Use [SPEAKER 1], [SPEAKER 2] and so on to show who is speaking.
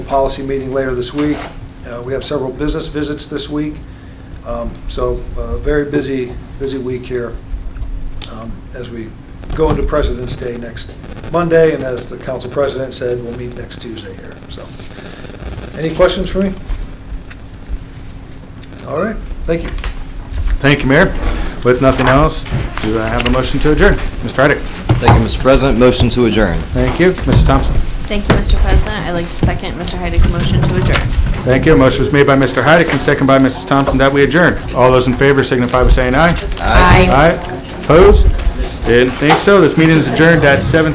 [SPEAKER 1] policy meeting later this week. Uh, We have several business visits this week, Um, so uh very busy, busy week here um, as we go into President's Day next Monday, and as the council president said, we'll meet next Tuesday here, so. Any questions for me? All right, thank you.
[SPEAKER 2] Thank you, Mayor. With nothing else, do I have a motion to adjourn? Mr. Heidick?
[SPEAKER 3] Thank you, Mr. President. Motion to adjourn.
[SPEAKER 2] Thank you. Mrs. Thompson?
[SPEAKER 4] Thank you, Mr. President. I'd like to second Mr. Heidick's motion to adjourn.
[SPEAKER 2] Thank you. Motion was made by Mr. Heidick and second by Mrs. Thompson that we adjourn. All those in favor signify by saying aye.
[SPEAKER 4] Aye.
[SPEAKER 2] Aye. Opposed? Didn't think so. This meeting is adjourned at seven